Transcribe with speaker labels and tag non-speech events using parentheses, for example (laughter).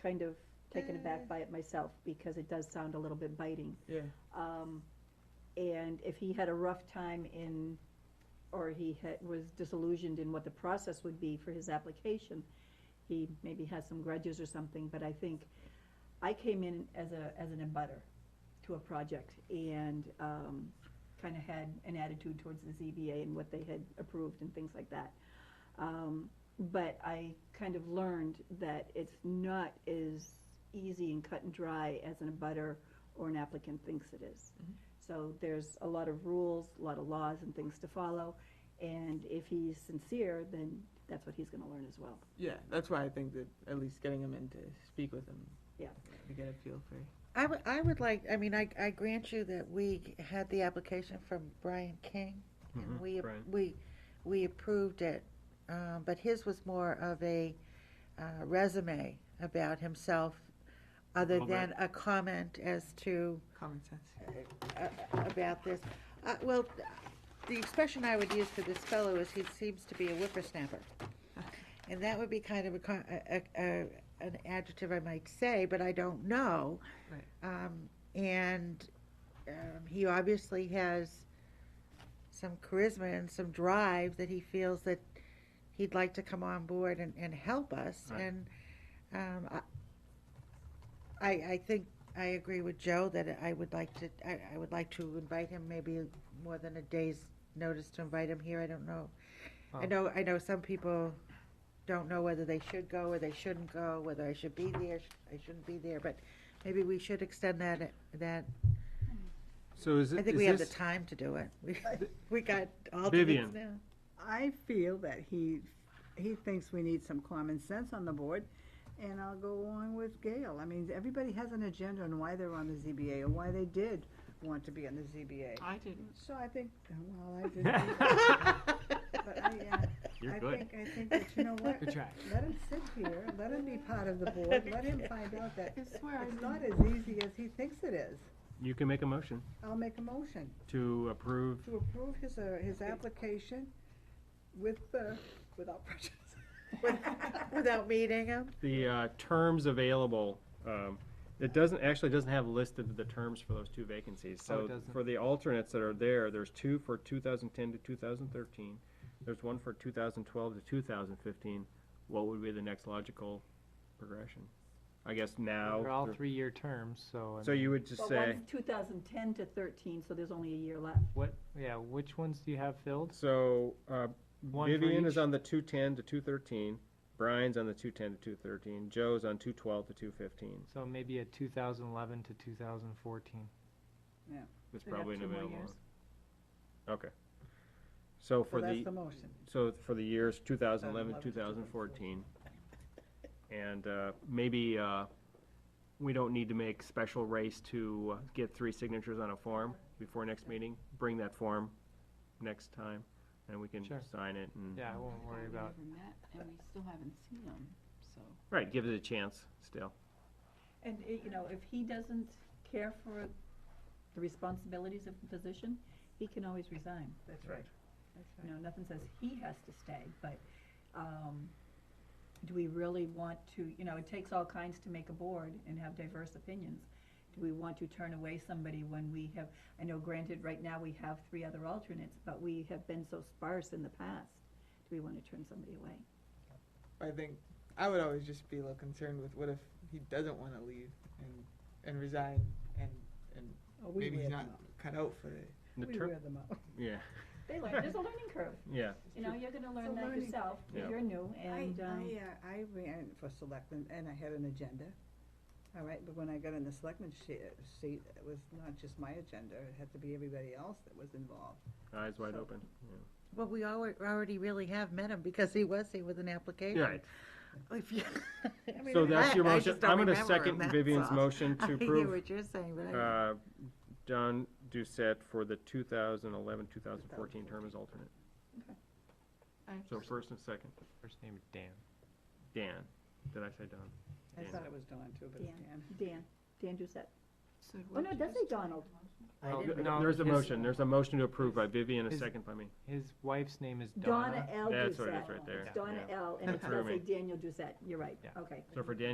Speaker 1: kind of taken aback by it myself, because it does sound a little bit biting.
Speaker 2: Yeah,
Speaker 1: Um, and if he had a rough time in, or he had, was disillusioned in what the process would be for his application, he maybe has some grudges or something, but I think, I came in as a, as an abutter to a project and, um, kinda had an attitude towards the ZBA and what they had approved and things like that. Um, but I kind of learned that it's not as easy and cut and dry as an abutter or an applicant thinks it is.
Speaker 2: Mhm.
Speaker 1: So there's a lot of rules, a lot of laws and things to follow, and if he's sincere, then that's what he's gonna learn as well.
Speaker 2: yeah, that's why I think that at least getting him in to speak with him.
Speaker 1: Yeah.
Speaker 2: To get a feel for.
Speaker 3: I would, I would like, I mean, I, I grant you that we had the application from Brian King, and
Speaker 4: Mhm,
Speaker 3: we,
Speaker 4: Brian.
Speaker 3: we, we approved it. Uh, but his was more of a uh, resume about himself, other
Speaker 4: little bit.
Speaker 3: than a comment as to,
Speaker 2: common sense.
Speaker 3: uh, about this. Uh, well, the expression I would use for this fellow is he seems to be a whippersnapper. And that would be kind of a, co- a, a, an adjective I might say, but I don't know.
Speaker 2: Right.
Speaker 3: Um, and, um, he obviously has some charisma and some drive that he feels that he'd like to come on board and, and help us.
Speaker 4: Right.
Speaker 3: And, um, I- I, I think I agree with Joe that I would like to, I, I would like to invite him maybe more than a day's notice to invite him here, I don't know. I
Speaker 4: Oh.
Speaker 3: know, I know some people don't know whether they should go or they shouldn't go, whether I should be there, sh- I shouldn't be there, but maybe we should extend that, that,
Speaker 4: So is
Speaker 3: I
Speaker 4: it,
Speaker 3: think we have
Speaker 4: is
Speaker 3: the
Speaker 4: this,
Speaker 3: time to do it. We, we got all
Speaker 4: Vivian.
Speaker 3: now.
Speaker 5: I feel that he, he thinks we need some common sense on the board, and I'll go along with Gail. I mean, everybody has an agenda on why they're on the ZBA, or why they did want to be on the ZBA.
Speaker 2: I didn't.
Speaker 5: So I think,
Speaker 4: (laughs)
Speaker 5: well, I didn't, but
Speaker 3: oh,
Speaker 5: I, uh,
Speaker 4: you're
Speaker 5: I
Speaker 4: good.
Speaker 5: think, I think that, you know what?
Speaker 4: Good try.
Speaker 5: Let him sit here, let him be part of the board, let him find out that
Speaker 2: I swear I
Speaker 5: it's
Speaker 2: didn't.
Speaker 5: not as easy as he thinks it is.
Speaker 4: You can make a motion
Speaker 5: I'll make a motion.
Speaker 4: to approve.
Speaker 5: to approve his, uh, his application with, uh, without prejudice.
Speaker 2: (laughs)
Speaker 3: Without meeting him.
Speaker 4: the uh, terms available, um, it doesn't, actually doesn't have listed the terms for those two vacancies.
Speaker 2: Oh, it
Speaker 4: So
Speaker 2: doesn't?
Speaker 4: for the alternates that are there, there's two for 2010 to 2013, there's one for 2012 to 2015. What would be the next logical progression? I guess now.
Speaker 6: They're all
Speaker 4: they're-
Speaker 6: three-year terms, so. I
Speaker 4: So you
Speaker 6: mean,
Speaker 4: would just
Speaker 1: But
Speaker 4: say,
Speaker 1: one's two thousand ten to thirteen, so there's only a year left.
Speaker 6: What, yeah, which ones do you have filled?
Speaker 4: so uh,
Speaker 6: One for
Speaker 4: Vivian is
Speaker 6: each?
Speaker 4: on the 210 to 213, Brian's on the 210 to 213, Joe's on 212 to 215.
Speaker 6: So maybe a 2011 to 2014.
Speaker 4: That's
Speaker 1: We'd have
Speaker 4: probably an
Speaker 1: two more
Speaker 4: available.
Speaker 1: years.
Speaker 4: one. Okay. So for
Speaker 5: So that's
Speaker 4: the,
Speaker 5: the motion.
Speaker 4: so for the years 2011,
Speaker 5: 2011,
Speaker 4: 2014. And uh, maybe uh, we don't need to make special race to uh, get three signatures on a form before next meeting. Bring that form next time and we can
Speaker 6: Sure.
Speaker 4: sign it and,
Speaker 6: Yeah, I won't worry about,
Speaker 7: We never met, and we still haven't seen him, so.
Speaker 4: right, give it a chance still.
Speaker 1: And, uh, you know, if he doesn't care for the responsibilities of the position, he can always resign.
Speaker 5: That's right.
Speaker 1: You know, nothing says he has to stay, but, um, do we really want to, you know, it takes all kinds to make a board and have diverse opinions. Do we want to turn away somebody when we have, I know granted, right now we have three other alternates, but we have been so sparse in the past. Do we wanna turn somebody away?
Speaker 2: I think I would always just be a little concerned with what if he doesn't want to leave and and resign and and
Speaker 5: Oh, we
Speaker 2: maybe
Speaker 5: wear
Speaker 2: he's
Speaker 5: them
Speaker 2: not
Speaker 5: out.
Speaker 2: cut out for it.
Speaker 4: The
Speaker 5: We
Speaker 4: ter-
Speaker 5: wear them out.
Speaker 4: Yeah,
Speaker 1: They learn, there's a learning curve,
Speaker 4: yeah.
Speaker 1: you know, you're gonna learn
Speaker 5: It's a
Speaker 1: that
Speaker 5: learning-
Speaker 1: yourself,
Speaker 4: Yeah.
Speaker 1: you're new,
Speaker 5: I,
Speaker 1: and, um,
Speaker 5: I, uh, I ran for selectman, and I had an agenda, all right, but when I got in the selectman she- seat, it was not just my agenda, it had to be everybody else that was involved.
Speaker 4: Eyes wide
Speaker 5: So-
Speaker 4: open.
Speaker 3: Well, we alre- already really have met him because he was here with an
Speaker 4: yeah.
Speaker 3: application.
Speaker 4: Right.
Speaker 3: If you- (laughs) I mean,
Speaker 4: So that's
Speaker 3: I-
Speaker 4: your
Speaker 3: I
Speaker 4: motion.
Speaker 3: just don't
Speaker 4: I'm gonna
Speaker 3: remember him,
Speaker 4: second
Speaker 3: that's
Speaker 4: Vivian's
Speaker 3: all.
Speaker 4: motion to
Speaker 3: (laughs) I
Speaker 4: approve.
Speaker 3: hear what you're saying, but I,
Speaker 4: Uh, John Doucette for the 2011, 2014 term as alternate. So first and second,
Speaker 6: first name is Dan.
Speaker 4: Dan. Did I say Don?
Speaker 5: I
Speaker 4: Dan.
Speaker 5: thought it was Dawn too, but it's Dan.
Speaker 1: Dan, Dan Doucette.
Speaker 7: So do
Speaker 1: Oh,
Speaker 7: I
Speaker 1: no, it does
Speaker 7: just
Speaker 1: say
Speaker 7: do the
Speaker 1: Donald.
Speaker 7: motion?
Speaker 3: I
Speaker 6: Well,
Speaker 3: didn't-
Speaker 6: Oh, no,
Speaker 4: Oh, There's a
Speaker 6: his-
Speaker 4: motion, there's a motion to approve by Vivian, a
Speaker 6: His-
Speaker 4: second by me.
Speaker 6: His wife's name is
Speaker 1: Donna L. Doucette.
Speaker 4: That's what it is right there.
Speaker 1: It's Donna L., and it
Speaker 4: Threw
Speaker 1: does say
Speaker 4: me.
Speaker 1: Daniel Doucette, you're right,
Speaker 6: Yeah.
Speaker 1: okay.
Speaker 4: So for Dan